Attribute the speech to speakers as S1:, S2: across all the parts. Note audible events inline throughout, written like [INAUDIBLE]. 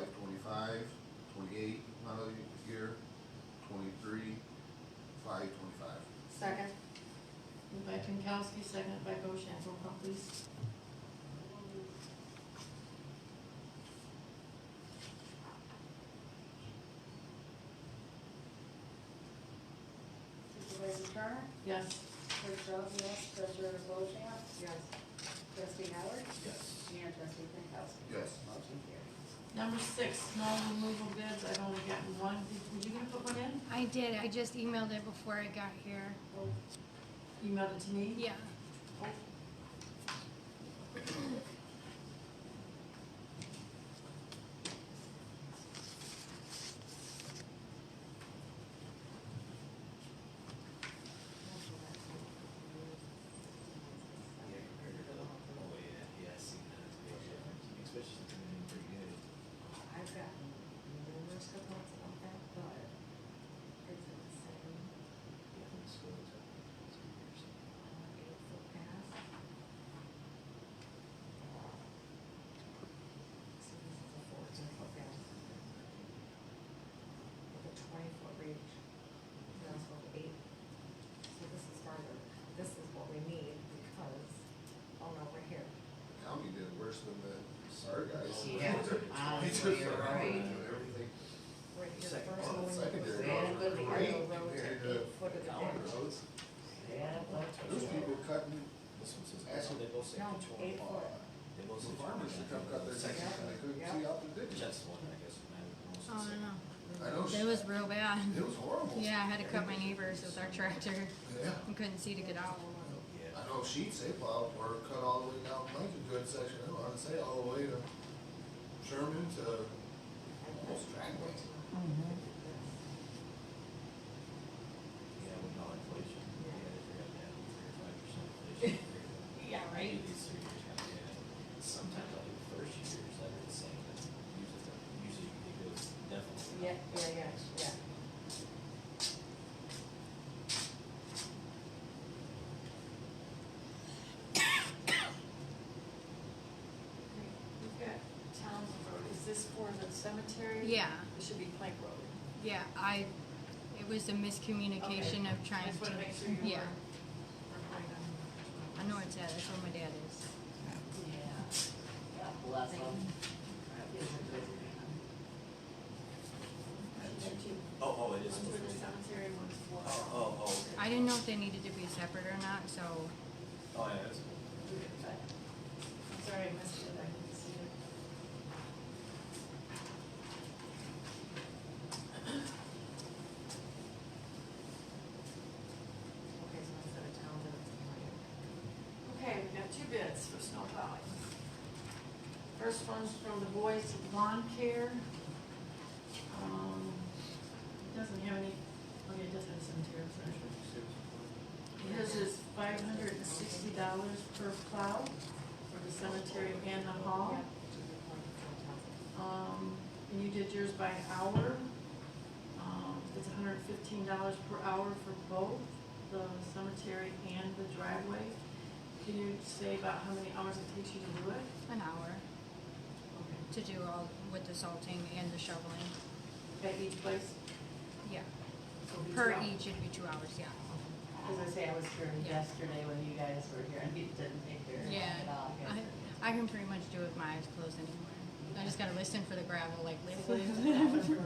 S1: twenty-five, twenty-eight model year, twenty-three, five twenty-five.
S2: Second.
S3: Moved by Pinkowski, seconded by Bochamp. Roll call, please.
S4: Supervisor Turner,
S3: Yes.
S4: Clerk Rosen, yes, Treasurer Bochamp,
S2: Yes.
S4: Trustee Howard,
S1: Yes.
S4: and Trustee Pankowski.
S1: Yes.
S4: Motion carries.
S3: Number six, snow removal bids. I've only gotten one. Did- Were you gonna put one in?
S5: I did, I just emailed it before I got here.
S3: Emailed it to me?
S5: Yeah,
S6: Yeah, compared to the, oh, yeah, yeah, I see that, it's a big difference, especially since they're doing pretty good.
S2: I've gotten numerous complaints about that, but it's insane.
S6: Yeah, the school is up, it's good years.
S2: It's so fast. So this is a fourteen foot fence. With a twenty foot reach, that's what eight. So this is farther, this is what we need because, oh no, we're here.
S1: County did worse than the SAR guys.
S2: Yeah.
S1: [LAUGHS]
S2: Honestly, you're right.
S1: Everything.
S2: We're here first.
S6: Second.
S2: and
S1: Well,
S2: we-
S1: secondary
S2: we had a good
S1: roads are great
S2: Ricardo road to
S1: compared to
S2: eight foot of the
S1: county
S2: ditch.
S1: roads.
S2: Yeah, well,
S1: Those people cutting,
S6: This one says,
S1: Actually,
S6: they both say
S2: no,
S6: control.
S2: eight
S6: all.
S2: foot.
S6: They both say.
S1: the farmers should come cut their
S6: Section.
S1: sections and they couldn't
S2: Yeah.
S1: see out the ditch.
S6: Just one, I guess, when I was.
S5: oh, I
S1: I know,
S5: don't know, it was
S1: it
S5: real bad.
S1: was horrible.
S5: Yeah, I had to cut my neighbors with our tractor,
S1: Yeah.
S5: I couldn't see to get out.
S6: Yeah.
S1: I know sheets they plowed were cut all the way down Blankengood section, I want to say all the way to Sherman to
S2: Mm-hmm.
S1: almost Dragway.
S6: Yeah, with all inflation, yeah, they forgot that, three or five percent inflation.
S3: Yeah, right.
S6: These three years, yeah, sometimes like the first year is like the same, but usually, usually it goes definitely.
S2: Yeah,
S6: up.
S2: yeah, yeah, yeah.
S3: We've got Towns Road. Is this for the cemetery?
S5: Yeah,
S3: It should be Plank Road.
S5: yeah, I, it was a miscommunication of
S3: I
S5: trying
S3: just
S5: to,
S3: wanna make sure you were.
S5: yeah,
S3: were right on.
S5: I know it's at, that's where my dad is.
S6: Oh, oh, it is.
S3: One's for the cemetery, one's for.
S6: Oh, oh, oh, okay.
S5: I didn't know if they needed to be separate or not, so,
S6: Oh, yeah, that's cool.
S3: Sorry, I missed it, I didn't see it.
S2: Okay, so instead of town, then it's Moyer.
S3: Okay, we've got two bids for snow plowing. First one's from the Boys Lawn Care. Um, it Doesn't have any, okay, it does have some tear pressure. His is five hundred and sixty dollars per plow for the cemetery and the hall. Um, and you did yours by hour. Um, it's hundred and fifteen dollars per hour for both the cemetery and the driveway. Can you say about how many hours it takes you to do it?
S5: an hour to do all, with the salting and the shoveling,
S3: At each place?
S5: yeah.
S3: So each
S5: Per
S3: round?
S5: each, it'd be two hours, yeah.
S4: As I say, I was here yesterday when you guys were here, and it didn't take very long
S5: Yeah,
S4: at all.
S5: I, I can pretty much do it with my eyes closed anywhere. I just gotta listen for the gravel, like literally.
S2: [LAUGHS]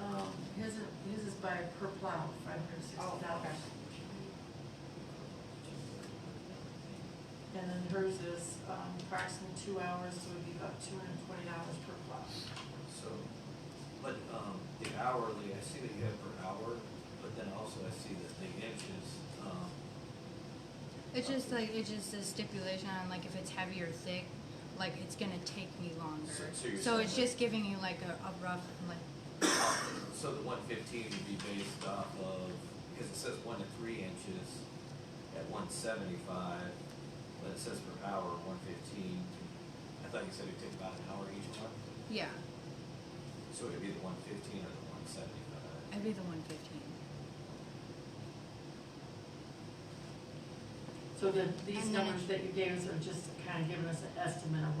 S3: Um, his, is- his is by per plow, five hundred and sixty dollars. And then hers is, um, approximately two hours, so it'd be about two hundred and twenty dollars per plow.
S6: So, but, um, the hourly, I see that you have per hour, but then also I see that the inches, um,
S5: It's just like, it's just a stipulation on like if it's heavy or thick, like it's gonna take me longer.
S6: So- so you're
S5: So it's
S6: saying-
S5: just giving you like a, a rough, like,
S6: so the one fifteen would be based off of, because it says one to three inches at one seventy-five, but it says per hour, one fifteen. I thought you said it took about an hour each one,
S5: yeah,
S6: so it'd be the one fifteen or the one seventy-five.
S5: I'd be the one fifteen.
S3: So the, these
S5: And then it-
S3: numbers that you gave us are just kind of giving us an estimate of what